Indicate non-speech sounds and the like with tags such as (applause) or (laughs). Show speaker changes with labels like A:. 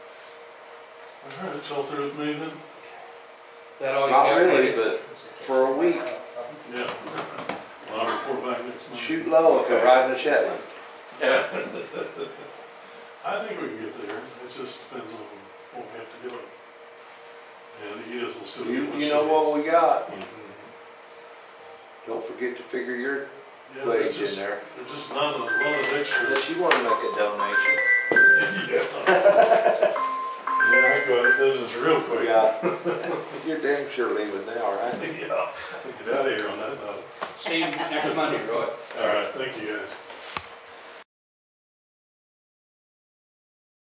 A: All right, so if there's moving,
B: That all you
C: Not
B: got?
C: really,
B: Randy?
C: but for a week,
A: yeah. Well, I'll report back next month.
C: shoot low if you're
D: Okay.
C: riding a Shetland.
D: Yeah.
A: I think we can get there, it just depends on what we have to do. And the ES will still. be
C: You,
A: much
C: you know what we got.
A: Mhm.
C: Don't forget to figure your
A: Yeah, there's
C: wage in
A: just,
C: there.
A: there's just not a lot of extras.
C: Unless you wanna make a donation.
A: Yeah, Yeah, I go out of business real (laughs) quick.
C: Yeah. (laughs) You're damn sure leaving now, right?
A: Yeah, get out of here on that note.
B: See you next Monday, Roy.
A: All right, thank you guys.